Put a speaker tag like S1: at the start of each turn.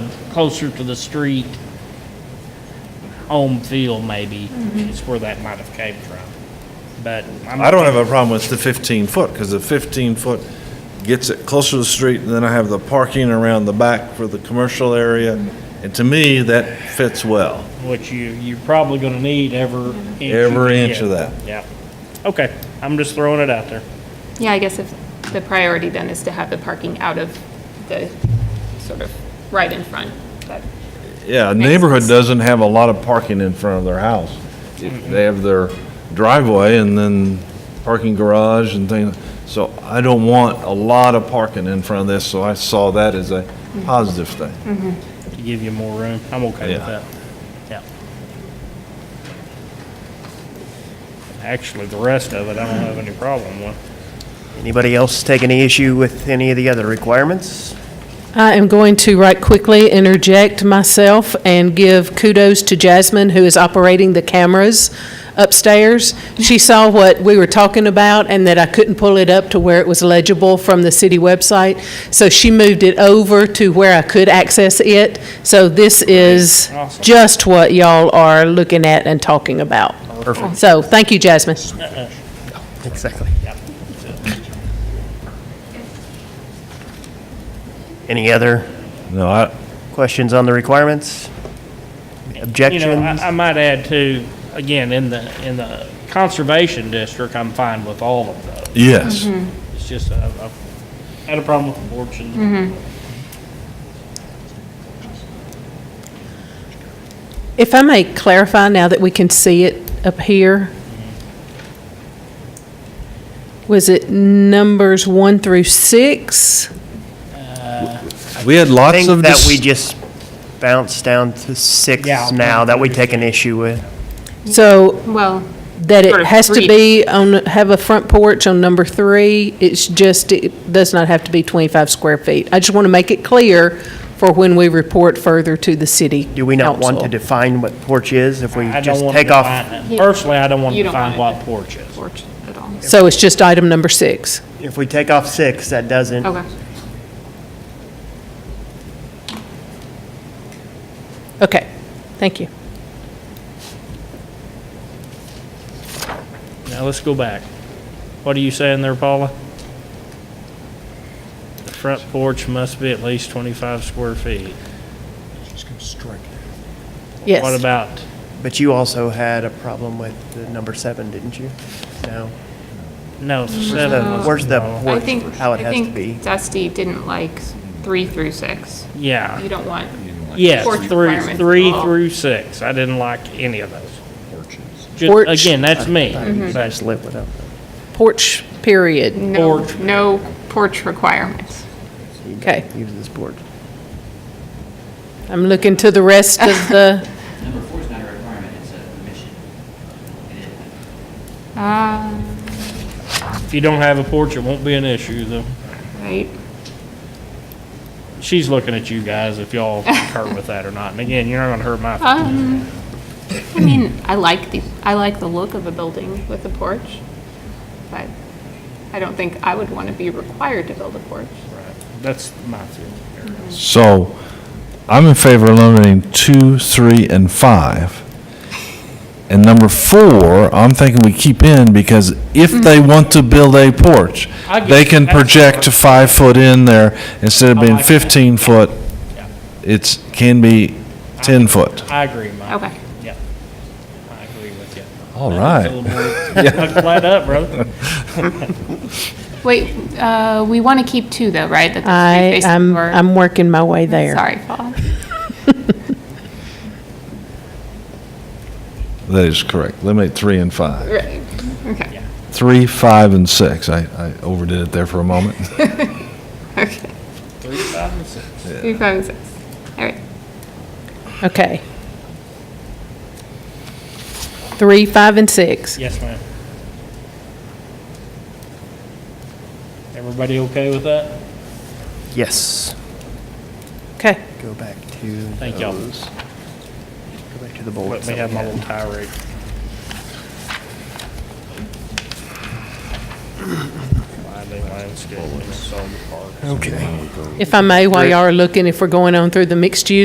S1: closer to the street, home field maybe, is where that might have came from. But I'm.
S2: I don't have a problem with the 15 foot, because the 15 foot gets it closer to the street, and then I have the parking around the back for the commercial area, and to me, that fits well.
S1: Which you, you're probably gonna need every inch. you
S2: Every
S1: can
S2: inch
S1: get.
S2: of that.
S1: Yeah. Okay, I'm just throwing it out there.
S3: Yeah, I guess if the priority then is to have the parking out of the, sort of, right in front, but,
S2: Yeah, a
S3: Makes
S2: neighborhood
S3: sense.
S2: doesn't have a lot of parking in front of their house. They have their driveway and then parking garage and things, so I don't want a lot of parking in front of this, so I saw that as a positive thing.
S1: to give you more room. I'm okay with
S2: Yeah.
S1: that. Yeah. Actually, the rest of it, I don't have any problem with.
S4: Anybody else take any issue with any of the other requirements?
S5: I am going to right quickly interject myself and give kudos to Jasmine, who is operating the cameras upstairs. She saw what we were talking about and that I couldn't pull it up to where it was legible from the city website. So she moved it over to where I could access it. So this is
S1: Awesome.
S5: just what y'all are looking at and talking about. Perfect. So, thank you, Jasmine.
S4: Exactly. Any other
S1: Mm.
S2: No, I,
S4: questions on the requirements?
S1: You know,
S4: Objections?
S1: I, I might add too, again, in the, in the conservation district, I'm fine with all of those.
S2: yes.
S1: Mm-hmm. It's just, I, I had a problem with
S3: Mm-hmm.
S1: abortion.
S5: If I may clarify now that we can see it up here, was it numbers one through six?
S2: We had
S4: I
S2: lots
S4: think
S2: of,
S4: that we
S2: dis-
S4: just bounced down to six
S1: Yeah.
S4: now that we take an issue with.
S5: So
S3: well,
S5: that
S3: Sort
S5: it
S3: of
S5: has to
S3: three.
S5: be on, have a front porch on number three, it's just, it does not have to be 25 square feet. I just want to make it clear for when we report further to the city
S4: Do we not want to
S5: council.
S4: define what porch is if we
S1: I don't
S4: just
S1: want to
S4: take off?
S1: define it. Personally, I don't want to
S3: You don't
S1: define
S3: want
S1: what porch is.
S3: porch at all.
S5: So it's just item number six.
S4: If we take off six, that doesn't,
S3: Okay,
S5: Okay, thank you.
S1: Now, let's go back. What are you saying there, Paula? The front porch must be at least 25 square feet.
S5: Yes.
S1: What about
S4: but you also had a problem with the number seven, didn't you? No.
S1: No,
S4: The-
S3: Mm-hmm.
S1: seven.
S4: Where's the
S3: I
S4: porch,
S3: think,
S4: how
S3: I
S4: it has to be?
S3: think Dusty didn't like three through six. You
S1: Yeah,
S3: don't want,
S1: yes,
S3: Porch
S1: three,
S3: requirements.
S1: three through six. I didn't like any of those. Ju-
S5: Porch.
S1: Again, that's me.
S3: Mm-hmm.
S4: I
S1: But
S4: just live without
S5: Porch, period.
S3: no,
S1: Porch.
S3: no porch requirements.
S5: Okay.
S4: use this board.
S5: I'm looking to the rest of the
S6: Number four is not a requirement, it's a permission. It is.
S3: Uh,
S1: If you don't have a porch, it won't be an issue though.
S3: right,
S1: She's looking at you guys if y'all concur with that or not. And again, you're not gonna hurt my,
S3: um, I mean, I like the, I like the look of a building with a porch, but I don't think I would want to be required to build a porch.
S1: that's my feeling.
S2: so I'm in favor of eliminating two, three, and five. And number four, I'm thinking we keep in because if they want to build a porch,
S1: Hmm. I get
S2: they
S1: it.
S2: can
S1: That's-
S2: project to five foot in there instead of
S1: I
S2: being
S1: like that.
S2: 15 foot.
S1: Yeah.
S2: It's, can be 10 foot.
S1: I agree, Mike.
S3: Okay.
S1: Yeah. I agree with you.
S2: All
S1: That's a
S2: right.
S1: little more- Flat up, brother.
S3: Wait, uh, we want to keep two though, right? That the street
S5: I,
S3: faces
S5: I'm,
S3: were-
S5: I'm working my way there.
S3: Sorry, Paul.
S2: That is correct. Eliminate three and five.
S3: Right, okay,
S2: Three, five, and six. I, I overdid it there for a moment.
S3: okay.
S1: Three, five, and six.
S3: Three, five, and six. All right,
S5: Okay. Three, five, and six.
S1: Yes, ma'am. Everybody okay with that?
S4: Yes.
S5: Okay.
S4: Go back to.
S1: Thank y'all.
S4: those. Go back to the
S1: Let
S4: bullets.
S1: me have
S4: that we
S1: my
S4: had.
S1: little tirade. Wildly landscaped, sold parks.
S4: Okay.
S5: If I may, while y'all are looking, if we're going on through the mixed use